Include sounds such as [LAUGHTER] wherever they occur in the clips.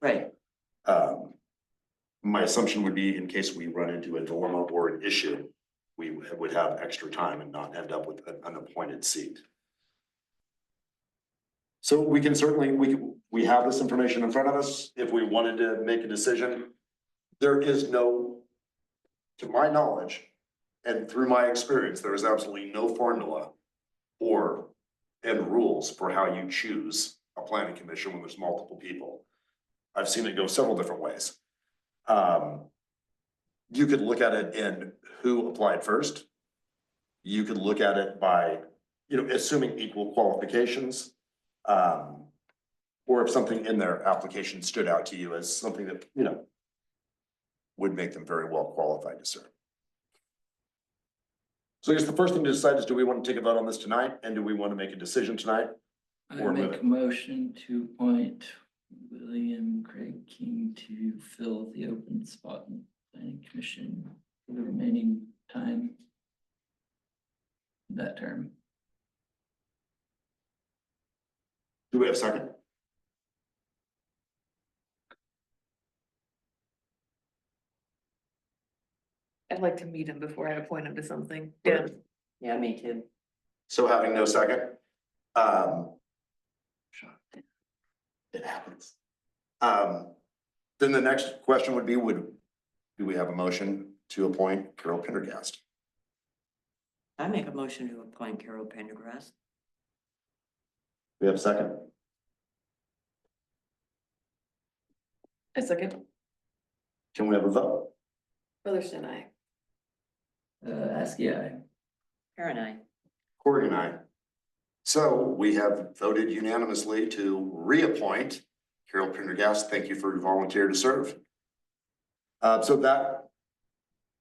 Right, Um. My assumption would be in case we run into a dilemma or an issue, we would would have extra time and not end up with an unappointed seat. So we can certainly, we, we have this information in front of us. If we wanted to make a decision, there is no, to my knowledge, and through my experience, there is absolutely no formula or, and rules for how you choose a planning commission when there's multiple people. I've seen it go several different ways. Um, you could look at it in who applied first. You could look at it by, you know, assuming equal qualifications. Um, or if something in their application stood out to you as something that, you know, would make them very well qualified to serve. So I guess the first thing to decide is, do we want to take a vote on this tonight and do we want to make a decision tonight? I Or move make it. a motion to appoint William Craig King to fill the open spot in the planning commission for the remaining time. of That term. Do we have a second? I'd like to meet him before I appoint him to something. Yeah. yeah, me too. So having no second, um, it happens. Um, then the next question would be, would, do we have a motion to appoint Carol Pendergast? I make a motion to appoint Carol Pendergrass. We have a second? A second, Can we have a vote? Featherston, I. Uh, ask, yeah, Karen, I, Corey and I. So we have voted unanimously to reappoint Carol Pendergast. Thank you for your volunteer to serve. Uh, so that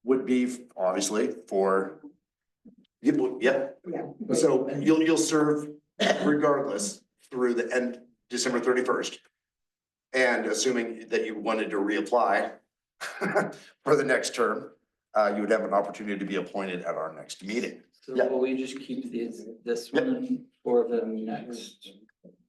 would be obviously for, yeah, well, yeah. So you'll, you'll serve regardless through the end, December thirty-first. And assuming that you wanted to reapply [LAUGHS] for the next term, uh, you would have an opportunity to be appointed at our next meeting. so Yeah. will we just keep this, this Yeah. one for the next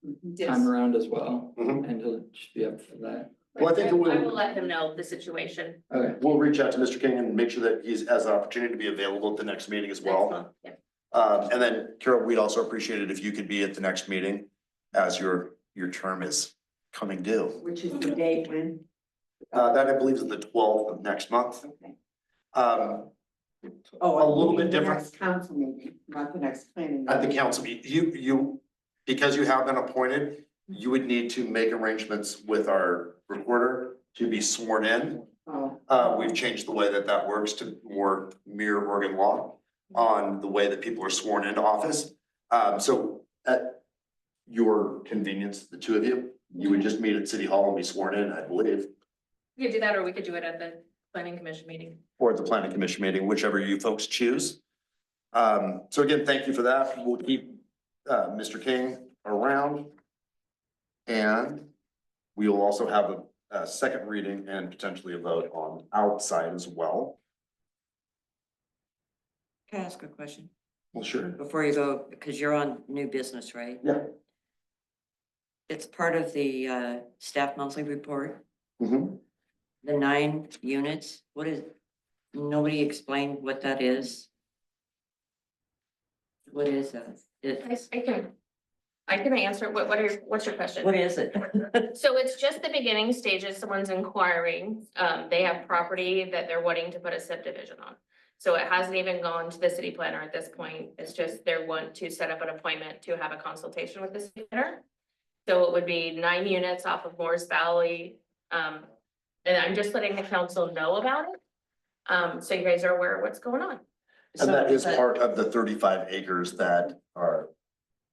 time Yes. around as well? Mhm. And he'll just be up for that, Well, I think it I would- will let him know the situation. okay, We'll reach out to Mr. King and make sure that he's has an opportunity to be available at the next meeting as next well. month. Yeah. Um, and then Carol, we'd also appreciate it if you could be at the next meeting as your, your term is coming due. which is the date when, Uh, that I believe is the twelfth of next month. okay. Um, Oh, a little meaning bit the different. next Council meeting, not the next planning. at the meeting. council, meet- you, you, because you have been appointed, you would need to make arrangements with our recorder to be sworn in. Oh, Uh, we've changed the way that that works to more mere Oregon law on the way that people are sworn into office. Um, so at your convenience, the two of you, you would just meet at City Hall and be sworn in, I believe, We could do that, or we could do it at the planning commission meeting. or at the planning commission meeting, whichever you folks choose. Um, so again, thank you for that. We'll keep, uh, Mr. King around. And we will also have a, a second reading and potentially a vote on outside as well. Can I ask a question? Well, sure. Before you go, because you're on new business, right? Yeah. It's part of the uh staff monthly report, Mm-hmm. the nine units, what is, nobody explained what that is? What is that? I, It's, I can, I can answer, what, what are, your- what's your question? what is it? So it's just the beginning stages, someone's inquiring, um, they have property that they're wanting to put a subdivision on. So it hasn't even gone to the city planner at this point, it's just they want to set up an appointment to have a consultation with the city planner. So it would be nine units off of Morris Valley, um, and I'm just letting the council know about it. Um, so you guys are aware of what's going on, And that is So- part of the thirty-five acres that are,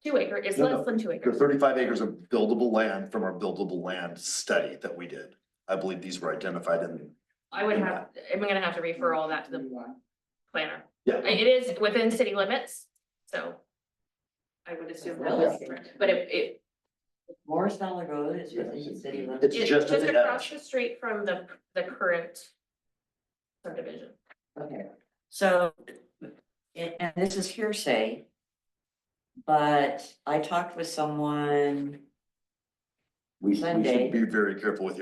two acre, it's No, no. less than two the acres. thirty-five acres of buildable land from our buildable land study that we did. I believe these were identified in, I would have, I'm gonna have to refer all that to the planner. yeah. It is within city limits, so. I would assume that was, but it, it, Morris Valley Road is within the city limits. It's it's just just at the across edge. the street from the, the current subdivision. Okay, so, and, and this is hearsay. But I talked with someone We we should Sunday. be very careful with